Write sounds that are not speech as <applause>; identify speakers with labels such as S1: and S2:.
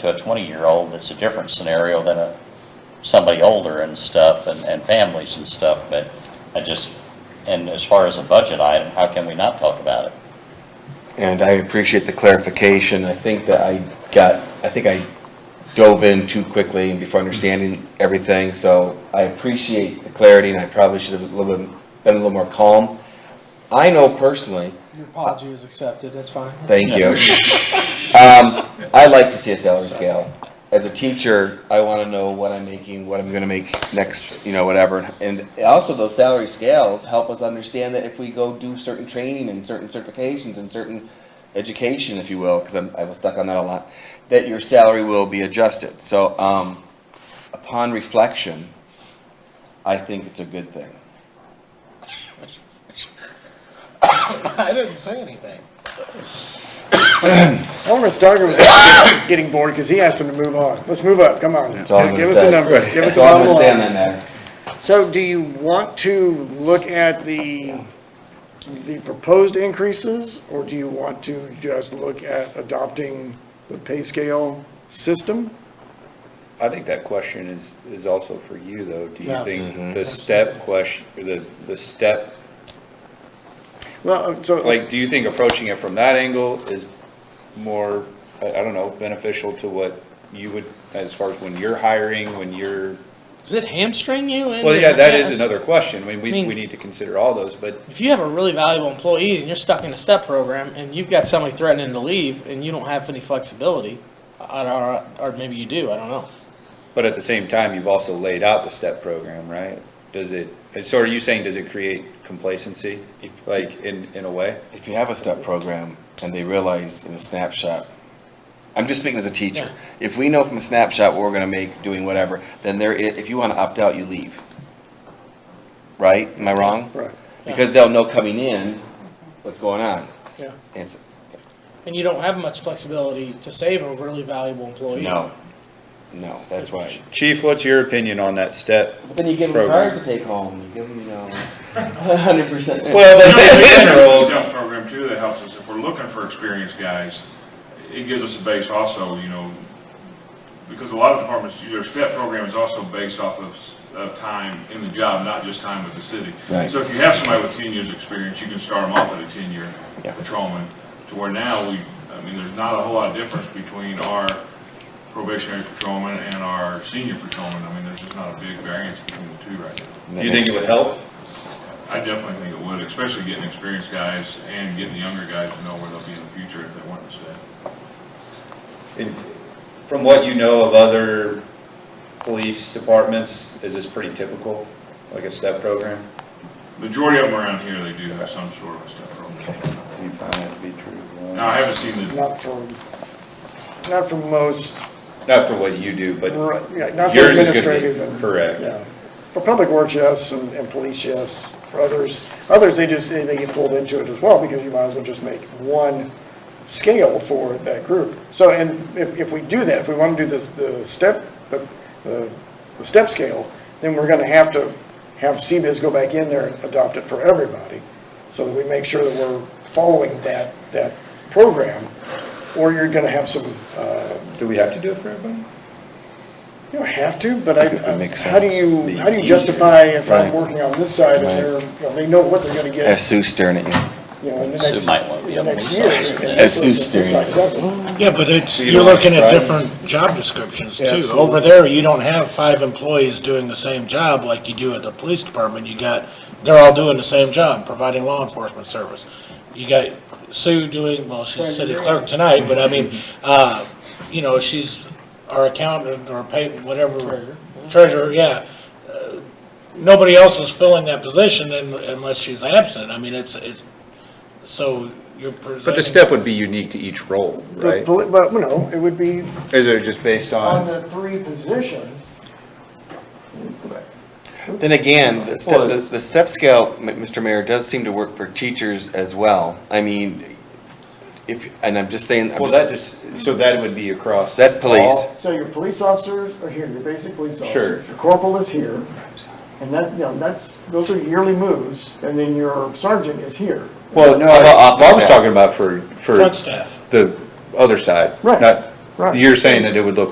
S1: to a twenty-year-old, it's a different scenario than a, somebody older and stuff, and, and families and stuff, but I just, and as far as a budget item, how can we not talk about it?
S2: And I appreciate the clarification. I think that I got, I think I dove in too quickly and before understanding everything, so I appreciate the clarity, and I probably should have a little bit, been a little more calm. I know personally,
S3: Your apology is accepted, that's fine.
S2: thank you. Um, I like to see a salary scale. As a teacher, I want to know what I'm making, what I'm gonna make next, you know, whatever. And also those salary scales help us understand that if we go do certain training and certain certifications and certain education, if you will, because I'm, I was stuck on that a lot, that your salary will be adjusted. So, um, upon reflection, I think it's a good thing.
S4: I didn't say anything.
S5: Alderman Steiger was getting- <coughs> getting bored because he asked him to move on. Let's move up, come on.
S2: That's all I'm gonna
S5: Give us
S2: say.
S5: a number, give us
S2: That's
S5: a
S2: all I'm
S5: bottom
S2: gonna say on that
S5: line.
S2: matter.
S5: So do you want to look at the, the proposed increases? Or do you want to just look at adopting the pay scale system?
S6: I think that question is, is also for you, though. Do you
S3: Yes.
S6: think the step question, or the, the step,
S5: Well, so,
S6: like, do you think approaching it from that angle is more, I, I don't know, beneficial to what you would, as far as when you're hiring, when you're,
S7: Does it hamstring you? in
S6: well,
S7: the-
S6: yeah, that is
S7: yes.
S6: another question. I mean, we,
S7: I mean-
S6: we need to consider all those, but
S7: If you have a really valuable employee and you're stuck in a step program and you've got somebody threatening to leave and you don't have any flexibility, I- or, or maybe you do, I don't know.
S6: But at the same time, you've also laid out the STEP program, right? Does it, and so are you saying, does it create complacency, like, in, in a way?
S2: if you have a step program and they realize in a snapshot, I'm just speaking as a teacher, if we know from a snapshot what we're gonna make doing whatever, then there, i- if you wanna opt out, you leave. Right? Am I wrong?
S5: right.
S2: Because they'll know coming in what's going on.
S7: Yeah.
S2: And so-
S7: And you don't have much flexibility to save a really valuable employee.
S2: no, no, that's right.
S6: Chief, what's your opinion on that STEP?
S2: But then you give
S6: them Program.
S2: to take home, you give them, you know, <laughs> hundred percent.
S6: Well,
S8: We
S6: but in
S8: have a
S6: general,
S8: Step program too that helps us, if we're looking for experienced guys, it gives us a base also, you know, because a lot of departments, their step program is also based off of, s- of time in the job, not just time with the city.
S2: Right.
S8: So if you have somebody with ten years' experience, you can start them off at a ten-year
S2: Yeah.
S8: patrolman, to where now we, I mean, there's not a whole lot of difference between our probationary patrolman and our senior patrolman, I mean, there's just not a big variance between the two right
S2: <laughs>
S6: <laughs>
S8: now.
S6: you think it would help?
S8: I definitely think it would, especially getting experienced guys and getting the younger guys to know where they'll be in the future if they want to stay.
S6: And From what you know of other police departments, is this pretty typical, like a STEP program?
S8: Majority of them around here, they do have some sort of a step program.
S6: Do you find that to be true?
S8: Now, I haven't seen the,
S5: Not for, not for most,
S6: Not for what you do, but
S5: right, yeah, not for
S6: yours is gonna
S5: administrative.
S6: be,
S5: and-
S6: correct.
S5: Yeah, for public works, yes, and, and police, yes, for others, others, they just, they they get pulled into it as well, because you might as well just make one scale for that group. So, and if, if we do that, if we want to do the, the step, the, the the step scale, then we're gonna have to have CBIZ go back in there and adopt it for everybody, so that we make sure that we're following that, that program, or you're gonna have some, uh,
S6: Do we have to do it for everybody?
S5: you don't have to, but I,
S2: It would make
S5: how do
S2: sense.
S5: you,
S6: Be
S5: how do you
S6: easier.
S5: justify if I'm
S2: Right.
S5: working on this side and
S2: Right.
S5: they're, you know, they know what they're gonna
S2: As
S5: get,
S2: Sue staring at you.
S5: you know, in the
S1: Sue
S5: next,
S1: might want to be
S5: the
S1: on
S5: next
S1: the
S5: year.
S1: side.
S5: and
S2: As
S5: this
S2: Sue's
S5: person-
S2: steering.
S5: this side doesn't.
S4: Yeah, but it's,
S6: So you
S4: you're
S6: don't have
S4: looking at
S6: five?
S4: different job descriptions
S5: Yeah,
S4: too.
S5: absolutely.
S4: Over there, you don't have five employees doing the same job like you do at the police department. You got, they're all doing the same job, providing law enforcement service. You got Sue doing, well, she's city clerk tonight, but I mean, uh, you know, she's our accountant or pay, whatever, treasurer, yeah. Uh, Nobody else is filling that position un- unless she's absent. I mean, it's, it's, so you're presenting.
S6: But the STEP would be unique to each role,
S5: But,
S6: right?
S5: poli- but, you know, it would be
S6: Is it just based
S5: on
S6: on,
S5: the three positions.
S2: Then again, the step, the- the step scale, M- Mr. Mayor, does seem to work for teachers as well. I mean, if, and I'm just saying, I'm
S6: well, that
S2: just,
S6: just, so that would be across.
S2: That's police.
S6: all?
S5: So your police officers are here, your basic police
S6: Sure.
S5: officers, your corporal is here, and that, you know, that's, those are yearly moves, and then your sergeant is here.
S6: Well, no, I
S2: How about
S6: I was
S2: office
S6: talking about for, for
S4: Front staff.
S6: the other side.
S5: Right.
S6: Not
S5: Right.
S6: You're saying that it would look